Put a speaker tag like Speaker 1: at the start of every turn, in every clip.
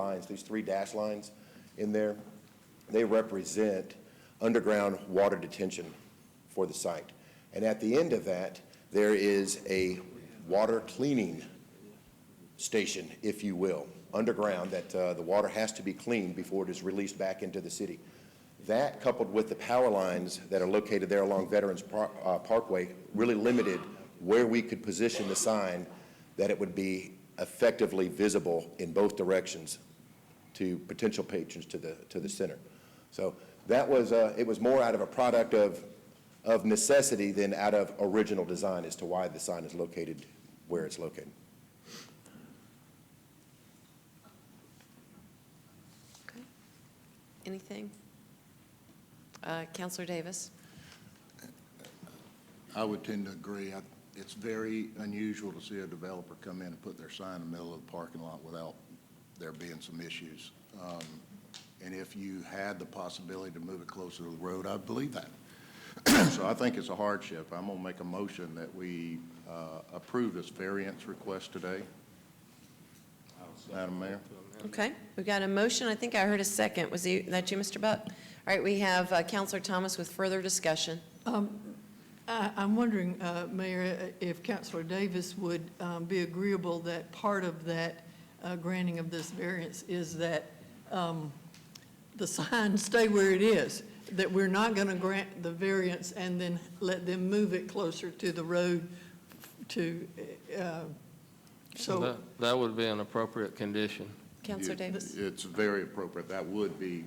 Speaker 1: lines, these three dash lines in there, they represent underground water detention for the site. And at the end of that, there is a water cleaning station, if you will, underground, that uh, the water has to be cleaned before it is released back into the city. That coupled with the power lines that are located there along Veterans Par- uh, Parkway really limited where we could position the sign that it would be effectively visible in both directions to potential patrons to the, to the center. So that was, uh, it was more out of a product of, of necessity than out of original design as to why the sign is located where it's located.
Speaker 2: Okay. Anything? Uh, Counselor Davis?
Speaker 3: I would tend to agree. I- It's very unusual to see a developer come in and put their sign in the middle of the parking lot without there being some issues. Um, And if you had the possibility to move it closer to the road, I believe that. So I think it's a hardship. I'm going to make a motion that we uh, approve this variance request today. Madam Mayor?
Speaker 2: Okay, we got a motion, I think I heard a second, was he- that you, Mr. Buck? All right, we have uh, Counselor Thomas with further discussion.
Speaker 4: Um, I, I'm wondering, uh, Mayor, if Councilor Davis would um, be agreeable that part of that uh, granting of this variance is that um, the sign stay where it is, that we're not going to grant the variance and then let them move it closer to the road to, uh, so,
Speaker 5: That- That would be an appropriate condition.
Speaker 2: Counselor
Speaker 3: You-
Speaker 2: Davis?
Speaker 3: It's very appropriate. That would be,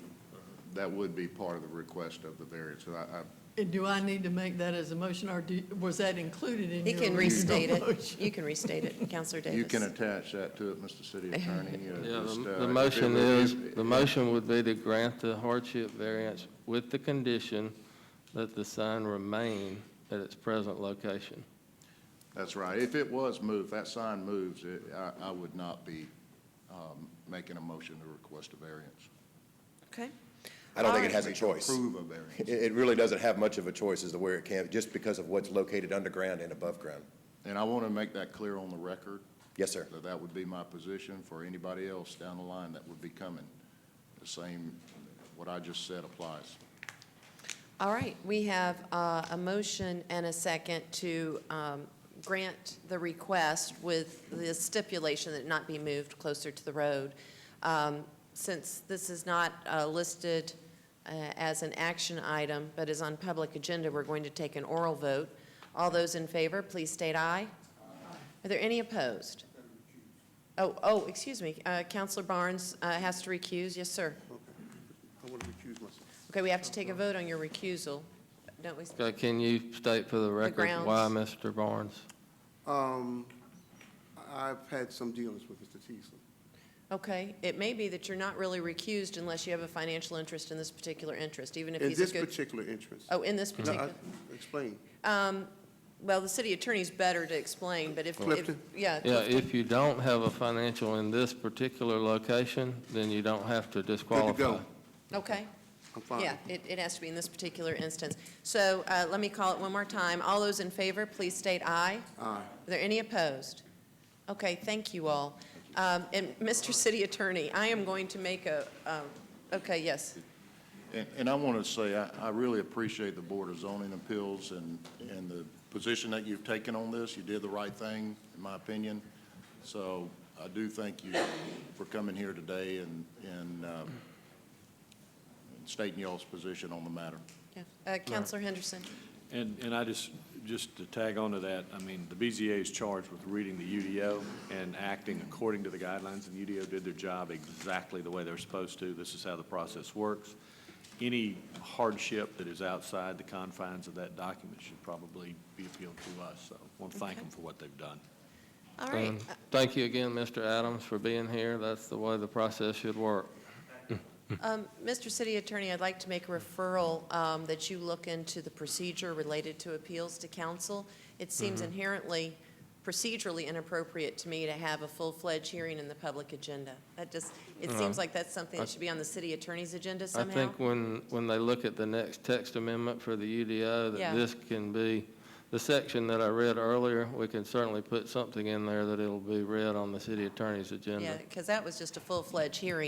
Speaker 3: that would be part of the request of the variance. And I- I
Speaker 4: and do I need to make that as a motion, or do- was that included in
Speaker 2: He
Speaker 4: your
Speaker 2: can
Speaker 4: original
Speaker 2: restate it.
Speaker 4: motion?
Speaker 2: You can restate it, Counselor Davis.
Speaker 3: You can attach that to it, Mr. City Attorney. uh,
Speaker 5: Yeah,
Speaker 3: just,
Speaker 5: the-
Speaker 3: uh,
Speaker 5: the
Speaker 3: if
Speaker 5: motion
Speaker 3: it-
Speaker 5: is,
Speaker 3: if-
Speaker 5: the motion would be to grant the hardship variance with the condition that the sign remain at its present location.
Speaker 3: That's right. If it was moved, that sign moves, it- I I would not be um, making a motion to request a variance.
Speaker 2: Okay,
Speaker 1: I don't think it
Speaker 2: Alright.
Speaker 1: has a choice.
Speaker 3: Approve a
Speaker 1: It,
Speaker 3: variance.
Speaker 1: it really doesn't have much of a choice as to where it can, just because of what's located underground and above ground.
Speaker 3: And I want to make that clear on the record,
Speaker 1: Yes, sir.
Speaker 3: that that would be my position for anybody else down the line that would be coming. The same, what I just said applies.
Speaker 2: all right, we have uh, a motion and a second to um, grant the request with the stipulation that it not be moved closer to the road. Um, Since this is not uh, listed uh, as an action item, but is on public agenda, we're going to take an oral vote. All those in favor, please state aye. Are there any opposed? Oh, oh, excuse me, uh, Counselor Barnes uh, has to recuse, yes, sir.
Speaker 6: I want to recuse myself.
Speaker 2: Okay, we have to take a vote on your recusal, don't we?
Speaker 5: Okay, Can you state for the record why,
Speaker 2: grounds.
Speaker 5: Mr. Barnes?
Speaker 6: Um, I've had some dealings with Mr. Teasley.
Speaker 2: Okay, it may be that you're not really recused unless you have a financial interest in this particular interest, even if
Speaker 6: In
Speaker 2: he's a
Speaker 6: this
Speaker 2: good.
Speaker 6: particular interest.
Speaker 2: Oh, in this
Speaker 6: No, I-
Speaker 2: particular,
Speaker 6: Explain.
Speaker 2: well, the city attorney's better to explain, but if. if-
Speaker 6: Clifton?
Speaker 2: Yeah.
Speaker 5: Yeah,
Speaker 2: Clifton.
Speaker 5: if you don't have a financial in this particular location, then you don't have to
Speaker 6: Good to
Speaker 5: disqualify.
Speaker 6: go.
Speaker 2: Okay,
Speaker 6: I'm fine.
Speaker 2: yeah, it, it has to be in this particular instance. So, uh, let me call it one more time. All those in favor, please state aye.
Speaker 6: Aye.
Speaker 2: Are there any opposed? Okay, thank you all. Um, And Mr. City Attorney, I am going to make a, um, okay, yes.
Speaker 3: And, and I want to say, I, I really appreciate the Board of Zoning Appeals and, and the position that you've taken on this. You did the right thing, in my opinion. So I do thank you for coming here today and, and um, and stating y'all's position on the matter.
Speaker 2: Yeah. Uh, Counselor Henderson?
Speaker 7: And, and I just, just to tag on to that, I mean, the BZA is charged with reading the UDO and acting according to the guidelines, and UDO did their job exactly the way they're supposed to. This is how the process works. Any hardship that is outside the confines of that document should probably be appealed to us, so I want to thank
Speaker 2: Okay.
Speaker 7: them for what they've done.
Speaker 2: All right,
Speaker 5: And Thank you again, Mr. Adams, for being here. That's the way the process should work.
Speaker 2: Um, Mr. City Attorney, I'd like to make a referral um, that you look into the procedure related to appeals to council. It seems
Speaker 5: Mm-hmm.
Speaker 2: inherently procedurally inappropriate to me to have a full-fledged hearing in the public agenda. That just, it seems like that's something that should be on the city attorney's agenda
Speaker 5: Oh. I
Speaker 2: somehow.
Speaker 5: think when, when they look at the next text amendment for the UDO,
Speaker 2: Yeah.
Speaker 5: that this can be, the section that I read earlier, we can certainly put something in there that it'll be read on the city attorney's agenda.
Speaker 2: Yeah, because that was just a full-fledged hearing.